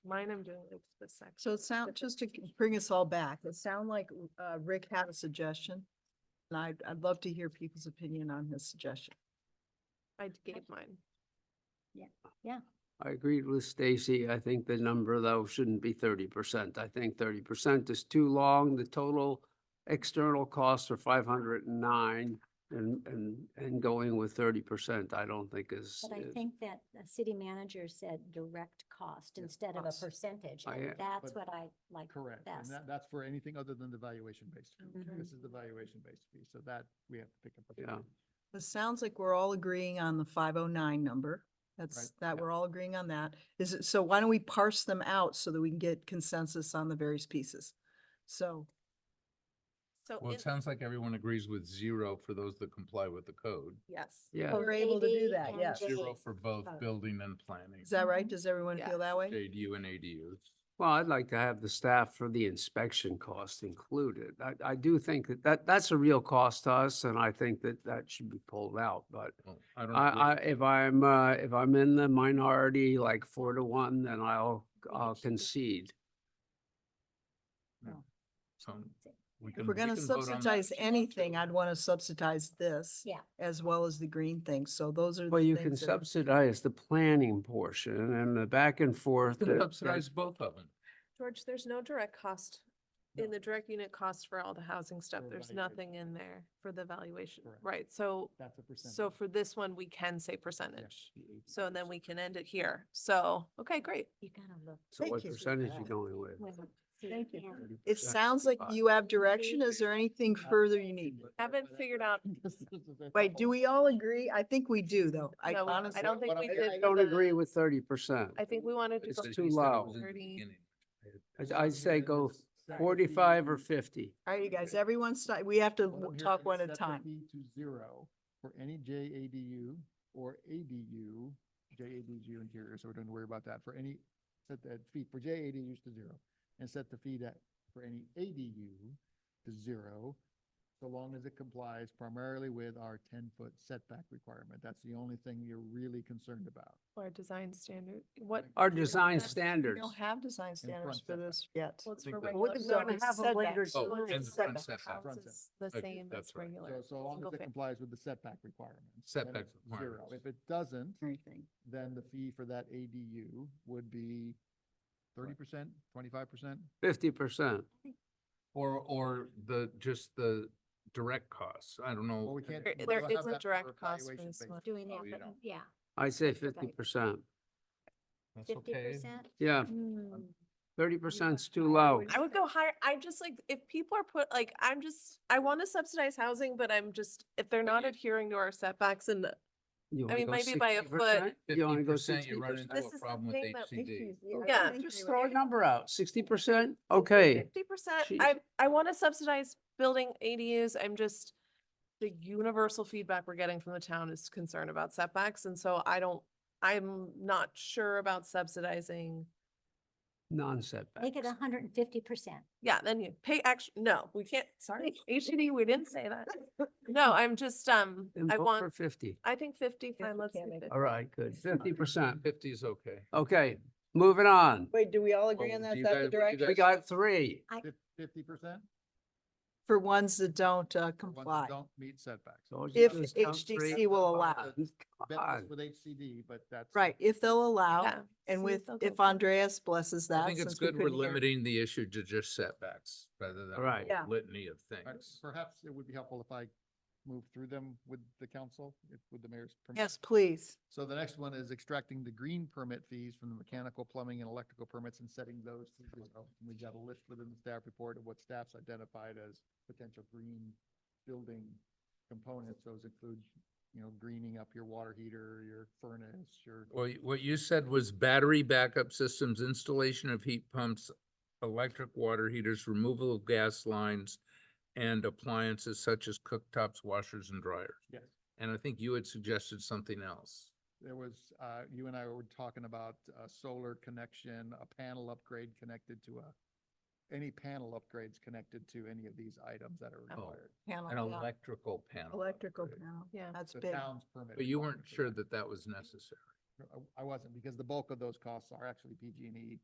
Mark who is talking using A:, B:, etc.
A: mine I'm doing like the section.
B: So it sound, just to bring us all back, it sound like uh, Rick had a suggestion. And I'd, I'd love to hear people's opinion on his suggestion.
A: I gave mine.
C: I agreed with Stacy. I think the number though shouldn't be thirty percent. I think thirty percent is too long. The total external costs are five hundred and nine and, and, and going with thirty percent, I don't think is.
D: But I
C: is-
D: think that the city manager said direct cost
E: Yeah,
D: instead of a
E: cost.
D: percentage,
C: I,
D: and
C: uh,
D: that's
E: but-
D: what I like
E: Correct, and
D: best.
E: that, that's for anything other than the valuation-based fee.
A: Mm-hmm.
D: Mhm.
E: This is the valuation-based fee, so that we have to pick up.
C: Yeah.
B: It sounds like we're all agreeing on the five oh nine number. That's, that
E: yeah.
B: we're all agreeing on that. Is it, so why don't we parse them out so that we can get consensus on the various pieces? So,
A: So.
F: Well,
A: in-
F: it sounds like everyone agrees with zero for those that comply with the code.
A: Yes.
C: Yeah,
D: For
B: We're able to do
D: AD
B: that,
D: and
B: yes.
F: Zero
D: JD.
F: for both
D: Both.
F: building and planning,
B: is that right?
D: Mhm.
B: Does everyone feel that way?
F: ADU and ADUs.
C: well, I'd like to have the staff for the inspection cost included. I, I do think that, that, that's a real cost to us and I think that that should be pulled out, but
F: Well, I don't.
C: I, I,
F: agree.
C: if I'm, uh, if I'm in the minority, like four to one, then I'll,
D: think it
C: I'll
D: should be-
C: concede.
F: So Um, we
B: If
F: can-
B: we're
F: we
B: gonna
F: can vote on that
B: subsidize
F: if you want
B: anything,
F: to.
B: I'd want to subsidize this.
D: Yeah.
B: As well as the green thing. So those are.
C: Well,
B: the
C: you can
B: things that-
C: subsidize the planning portion and the back and forth. that- that-
F: Subsidize both of them.
A: George, there's no direct cost in
E: No.
A: the direct unit cost for all the housing stuff.
E: For
A: There's
E: valuation.
A: nothing in there for the valuation,
E: Correct.
A: right? So,
E: That's a percentage.
A: so for this one, we can say percentage. So then we can end it here. So, okay, great.
D: You gotta look.
C: So
B: Thank
C: what
B: you.
C: percentage you going with?
D: when the city
B: Thank you.
D: manager-
B: It sounds like you have direction. Is there anything further you need?
A: Haven't figured out-
B: Wait, do we all agree? I think we do though. I
A: No, we- I
B: honestly,
A: don't think
E: what
A: we
E: I'm-
A: did.
C: I don't
A: the-
C: agree with thirty percent.
A: I think we wanted to
C: It's
A: go
C: just
A: to
C: too low.
A: thirty.
C: I'd say go Forty-five or fifty.
B: all right, you guys, everyone, stop. we have to w- talk one at a time.
E: To zero for any JADU or ADU, JADU interior, so we don't worry about that, for any, set that fee, for JADUs to zero. And set the fee that, for any ADU to zero, so long as it complies primarily with our ten-foot setback requirement. That's the only thing you're really concerned about.
A: Or design standard, what?
C: Our design
A: That's-
B: We
C: standards.
B: don't have design standards
E: front
B: for
E: setback.
B: this yet.
A: Well, it's
F: think
A: for
F: that-
B: Well, we
A: regular.
B: can
A: no,
B: go
A: it's
B: to have a later
A: setbacks.
F: Oh,
A: Well,
B: design
A: it's
F: and the
B: setback.
F: front setback.
A: House
E: Front
A: is the
F: Okay,
A: same as
F: that's right.
A: regular.
E: So, so long
A: single
E: as it
A: fam-
E: complies with the setback requirements. then
F: Setback
E: it's zero.
F: requirements.
E: If it doesn't,
B: Anything.
E: then the fee for that ADU would be thirty percent, twenty-five percent?
C: Fifty percent.
F: Or, or the, just the direct costs. I don't know.
E: Well, we can't.
A: There-
E: we
A: there
E: don't have
A: is a
E: that for
A: direct cost for
E: evaluation
A: this
E: basis.
A: one.
D: Doing
F: Oh,
D: that,
F: you
D: but
F: don't.
D: yeah,
C: I'd say
D: Right.
C: fifty percent.
F: That's
D: fifty
F: okay.
D: percent. Hmm,
C: Yeah, thirty percent's too low.
A: I would go higher. I just like, if people are put, like, I'm just, I want to subsidize housing, but I'm just, if they're not adhering to our setbacks and
C: You wanna
A: mean,
C: go
A: maybe by a foot.
C: 60%? You
F: Fifty
C: only go
F: percent,
C: sixty
F: you run
C: percent.
F: into
A: This
F: a
A: is the
F: problem with
A: thing that
F: HCD.
A: Yeah.
C: Just throw a number out. Sixty percent? Okay.
A: fifty percent,
C: Jeez.
A: I, I want to subsidize building ADUs. I'm just, the universal feedback we're getting from the town is concern about setbacks. And so I don't, I'm not sure about subsidizing.
C: Non-setbacks.
D: Make it hundred and fifty percent.
A: Yeah, then you pay extra. No, we can't, sorry, HCD, we didn't say that. No, I'm just, um,
C: Then
A: I
C: vote
A: want,
C: For fifty.
A: I think fifty,
B: we
A: fine, let's do
B: can't make it.
A: fifty.
C: All right, good. Fifty percent.
F: Fifty is okay.
C: Okay, moving on.
B: Wait, do we all
F: agree
B: agree
F: Well,
B: on
F: on
B: that?
F: that? do you Is that the guys-
B: That
F: what do you
B: direction
F: direction?
C: We got three.
E: Fifty percent?
B: for ones that don't uh, comply,
E: Don't meet setbacks.
C: So all you
B: if
C: do is count three.
B: HDC will allow.
E: Bet
C: God.
E: this with HCD, but that's.
B: Right, if they'll allow,
A: Yeah,
B: and
A: see,
B: with,
A: they'll go
B: if
A: for it.
B: Andreas blesses that.
F: I think it's
B: since we
F: good we're
B: couldn't hear-
F: limiting the issue to just setbacks rather than a
C: Right.
F: whole
B: Yeah.
F: litany of
E: Right,
F: things.
E: Perhaps it would be helpful if I move through them with the council, if- with the mayor's. permission.
B: Yes, please.
E: So the next one is extracting the green permit fees from the mechanical, plumbing, and electrical permits and setting those to zero. And We've got a list within the staff report of what staff's identified as potential green building components. Those include, you know, greening up your water heater, your furnace, your.
F: Well, y- what you said was battery backup systems, installation of heat pumps, electric water heaters, removal of gas lines, and appliances such as cooktops, washers, and dryers.
E: Yes.
F: And I think you had suggested something else.
E: There was, uh, you and I were talking about a solar connection, a panel upgrade connected to a, any panel upgrades connected to any of these items that are
F: Oh.
E: required.
B: Panel,
F: An
B: yeah.
F: electrical panel.
B: Electrical
F: upgrade.
B: panel,
A: Yeah.
B: that's
E: The
B: big.
E: town's permit.
F: But you weren't
E: requirement for
F: sure that that was necessary.
E: No, I I wasn't, because the bulk of those costs are actually PG&E